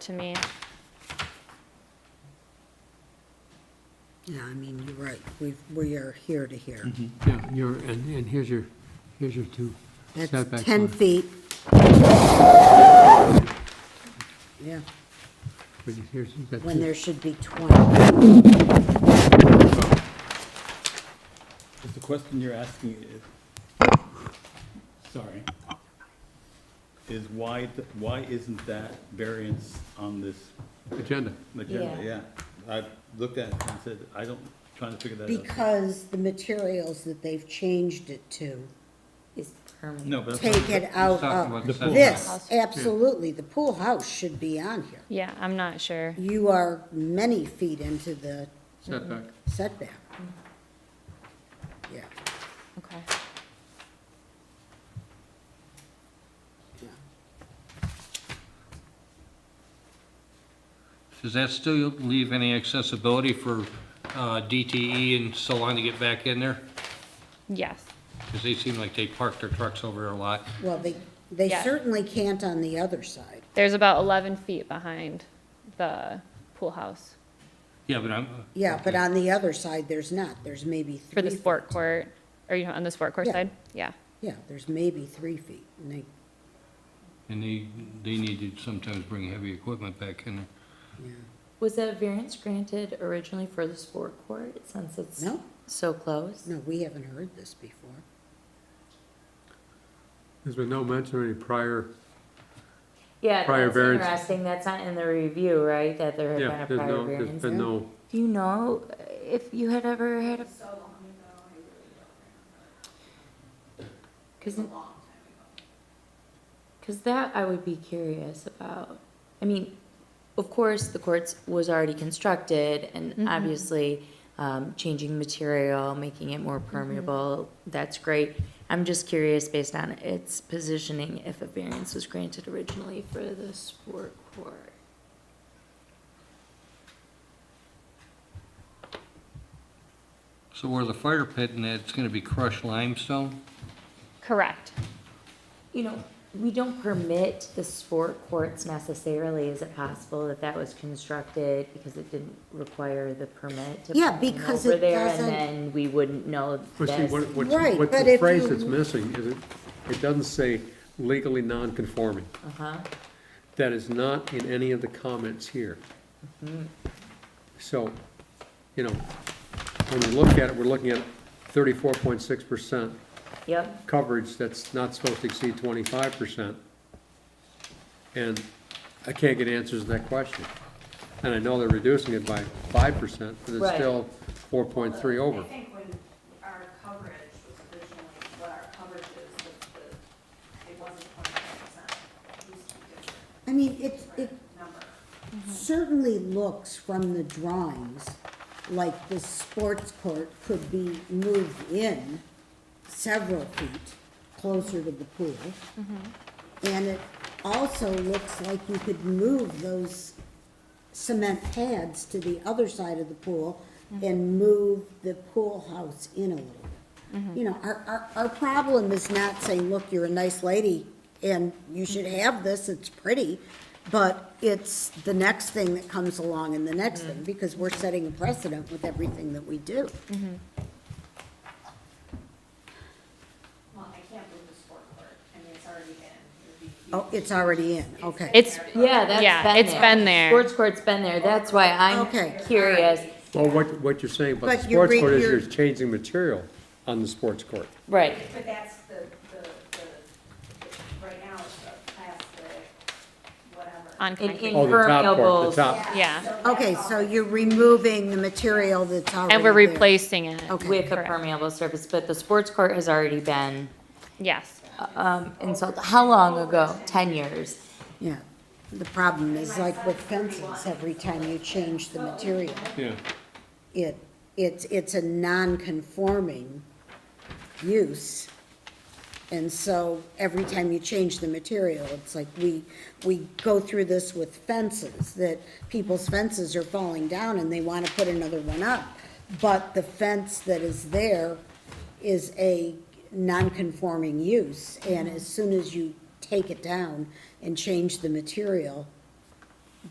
to me. Yeah, I mean, you're right. We, we are here to here. Yeah, and you're, and, and here's your, here's your two That's setbacks. 10 on- feet. Yeah, but Here's, you've got when two, there should be 20. Is the question you're asking is, sorry, is why, th- why isn't that variance on this agenda. agenda? Yeah. Yeah, I looked at it and said, I don't, trying to figure that out. Because the materials that they've changed it to Is permanent. No, but. that's take it out talking about of the pool this. house. Absolutely, the pool house should be on here. Yeah, I'm not sure. You are many feet into the Setback. setback. Yeah, Okay. yeah. Does that still leave any accessibility for uh, DTE and Salon to get back in there? Yes. Because they seem like they park their trucks over there a lot. Well, they, they Yeah. certainly can't on the other side. There's about 11 feet behind the pool house Yeah, but I'm, Yeah, but on the other side, there's not. There's maybe three. for the feet. sport court, or you know, on the sport court Yeah. side? Yeah. Yeah, there's maybe three feet. And they, and they, they need to sometimes bring heavy equipment back in there. yeah. Was that variance granted originally for the sport court, since it's No. so close? No, we haven't heard this before. There's been no mention of any prior, Yeah, Prior that's variance. interesting, that's not in the review, right, that there yeah, had been there's a prior no, there's variance? been no, Do you know if you had ever had a? So long ago, I really don't remember. Cause. Cause that I would be curious about, I mean, of course, the courts was already constructed and obviously, um, changing material, making it more permeable, that's great. I'm just curious based on its positioning, if a variance was granted originally for the sport court. So where the fire pit and that's going to be crushed limestone? Correct. You know, we don't permit the sport courts necessarily. Is it possible that that was constructed because it didn't require the permit to Yeah, put them because over it there, doesn't- And then we wouldn't know but see, this. what, what's- Right, what but the if phrase you- that's missing is it, it doesn't say legally non-conforming. Uh-huh. That is not in any of the comments here. Mm-hmm. So, you know, when we look at it, we're looking at thirty-four point six percent Yep, coverage that's not supposed to exceed twenty-five percent. And I can't get answers to that question. And I know they're reducing it by five percent, but it's Right. still four point three over. I think when our coverage was originally, what our coverage is, the- the- it wasn't twenty-five percent. It used to be a I mean, it, it different number. certainly looks from the drawings like the sports court could be moved in several feet closer to the pool. Mm-hmm. And it also looks like you could move those cement pads to the other side of the pool and move the pool house in a little bit. Mm-hmm. You know, our, our, our problem is not saying, look, you're a nice lady and you should Mm-hmm. have this, it's pretty. But it's the next thing that comes along and the next Mm-hmm. thing, because we're setting a precedent with everything that we do. Well, I can't move the sport court. I mean, it's already in. It would be- Oh, it's already in, okay. It's yeah, that's Yeah, been it's there. been there. Sports court's been there. That's why Okay. I'm curious. Well, what, what you're saying about the But you're sports re- court is you're- you're changing material on the sports court. Right. But that's the, the, the, right now it's a plastic, whatever. on An concrete. Oh, the top impermeable. part, the top. yeah. Okay, so you're removing the material that's already And we're there. replacing it. Okay. With a Correct. permeable surface, but the sports court has already been, Yes. um, installed. How long ago? Ten years? Yeah, the problem is like with fences, every time you change the material, Yeah. it, it's, it's a non-conforming use. And so every time you change the material, it's like we, we go through this with fences, that people's fences are falling down and they want to put another one up. But the fence that is there is a non-conforming use. And as soon as you take it down and change the material,